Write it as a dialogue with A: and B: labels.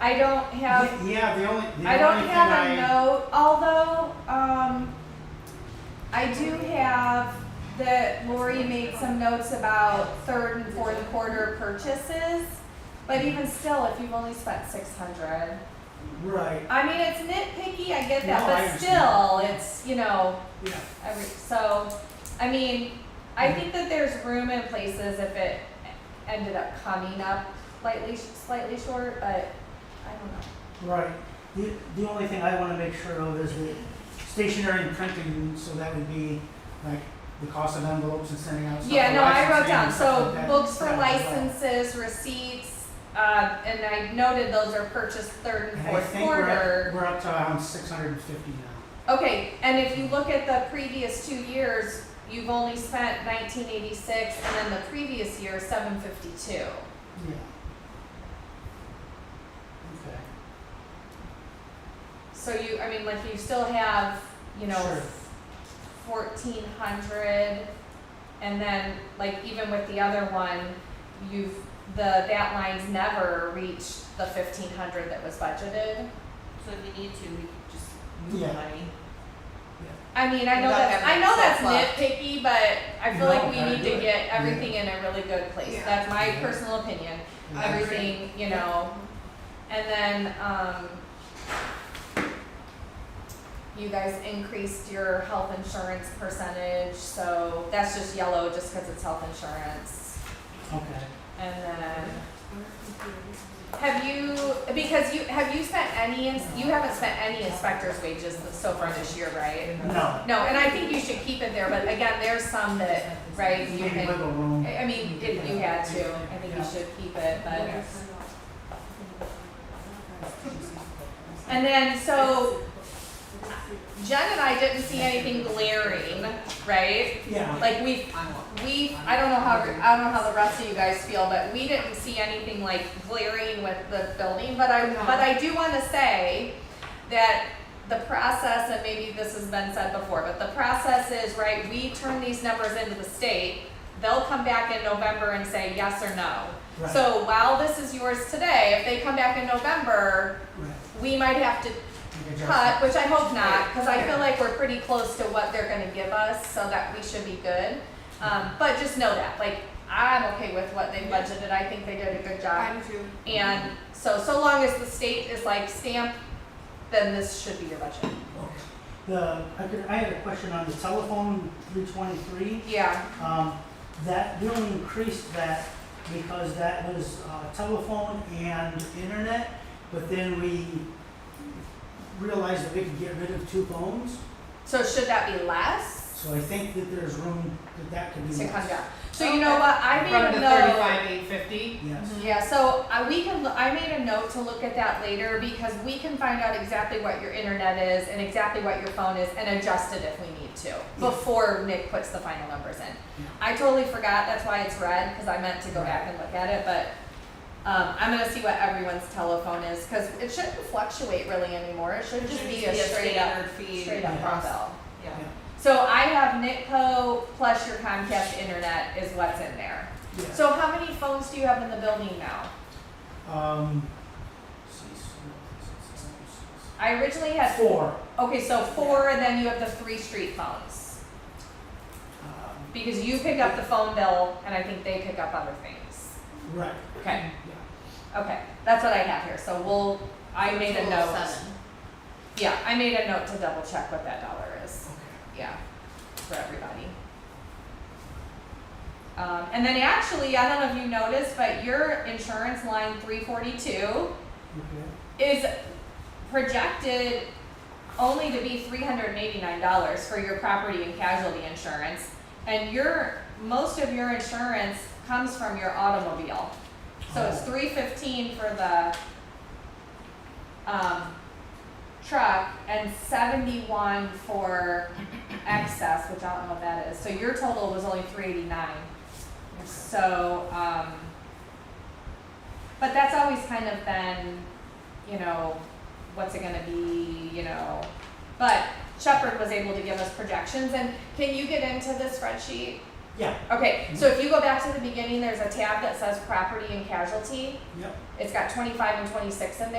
A: I don't have,
B: Yeah, the only, the only thing I.
A: I don't have a note, although, um, I do have that Lori made some notes about third and fourth quarter purchases. But even still, if you've only spent six hundred,
B: Right,
A: I mean, it's nitpicky, I get
B: No,
A: that,
B: I
A: but
B: understand.
A: still, it's, you know,
B: yeah,
A: every, so, I mean, I think that there's room in places if it ended up coming up slightly, slightly short, but I don't know.
B: right. The, the only thing I wanna make sure of is the stationery and printing, so that would be like the cost of envelopes and sending out stuff.
A: Yeah,
B: for
A: no, I wrote
B: licensing
A: down,
B: and stuff
A: so
B: like that.
A: books for
B: Yeah, right.
A: licenses, receipts, uh, and I noted those are purchased third and
B: And I
A: fourth
B: think we're
A: quarter.
B: up, we're up to around six hundred and fifty now.
A: Okay, and if you look at the previous two years, you've only spent nineteen eighty-six and then the previous year, seven fifty-two.
B: Yeah. Okay.
A: So you, I mean, like you still have, you know,
B: Sure.
A: fourteen hundred. And then, like even with the other one, you've, the, that line's never reached the fifteen hundred that was budgeted.
C: So if we need to, we could just move
B: Yeah.
C: the money.
A: I mean, I know
C: Without
A: that's, I
C: having
A: know
C: to
A: that's
C: flip-flop.
A: nitpicky, but I feel like
B: No,
A: we
B: gotta
A: need
B: do
A: to
B: it.
A: get everything in a really good place.
C: Yeah.
A: That's my
B: Yeah.
A: personal opinion.
B: Yeah.
C: I- agree.
A: Everything, you know, and then, um, you guys increased your health insurance percentage, so that's just yellow just because it's health insurance.
B: Okay.
A: And then, have you, because you, have you spent any, ins- you haven't spent any inspector's wages so far this year, right?
B: No.
A: No, and I think you should keep it there, but again, there's some that, right, you
B: Maybe
A: can,
B: wiggle room.
A: I I mean, if you had to, I think you should keep it, but. And then, so Jen and I didn't see anything glaring, right?
B: Yeah.
A: Like we, we, I don't know how, I don't know how the rest of you guys feel, but we didn't see anything like glaring with the building, but I,
C: No.
A: but I do wanna say that the process, and maybe this has been said before, but the process is, right, we turn these numbers into the state, they'll come back in November and say yes or no.
B: Right.
A: So while this is yours today, if they come back in November,
B: Right.
A: we might have to
B: Make adjustments.
A: cut, which I hope not, because I feel like we're pretty close to what they're gonna give us, so that we should be good. Um, but just know that, like, I'm okay with what they budgeted, I think they did a good job.
C: too.
A: And so, so long as the state is like stamp, then this should be your budget.
B: The, I could, I had a question on the telephone, three twenty-three,
A: Yeah,
B: um, that, we only increased that because that was, uh, telephone and internet, but then we realized that we could get rid of two phones,
A: so should that be less
B: so I think that there's room that that could be
A: to come
B: less.
A: down? So you know what, I made
D: From
A: a
D: the
A: note.
D: thirty-five, eight fifty?
B: Yes,
A: Yeah, so uh, we can, lo- I made a note to look at that later because we can find out exactly what your internet is and exactly what your phone is and adjust it if we need to before Nick puts the final numbers in. I totally forgot, that's why it's red, because I meant to go back and look at it, but um, I'm gonna see what everyone's telephone is, because it shouldn't fluctuate really anymore, it should just be a straight up,
C: standard fee.
A: straight up
B: across.
A: bill.
C: Yeah.
A: So I have Nitco plus your Comcast internet is what's in there.
B: yes.
A: So how many phones do you have in the building now?
B: Um, let's see, so-
A: I originally had
B: Four,
A: okay, so four, and then you have the three street phones
B: um,
A: because you pick up the phone bill, and I think they pick up other things.
B: right,
A: Okay,
B: yeah.
A: okay, that's what I have here. So we'll, I made a
C: Total of
A: note.
C: seven.
A: Yeah, I made a note to double check what that dollar is.
B: Okay.
A: Yeah, for everybody. Um, and then actually, I don't know if you noticed, but your insurance line three forty two
B: Okay.
A: is projected only to be three hundred and eighty-nine dollars for your property and casualty insurance. And your, most of your insurance comes from your automobile. So it's
B: Oh.
A: three fifteen for the, um, truck and seventy-one for excess, which I don't know what that is. So your total was only three eighty-nine. So, um, but that's always kind of been, you know, what's it gonna be, you know? But Shepherd was able to give us projections, and can you get into the spreadsheet?
B: Yeah,
A: Okay, so if you go back to the beginning, there's a tab that says property and casualty.
B: yep.
A: It's got twenty-five and twenty-six in there.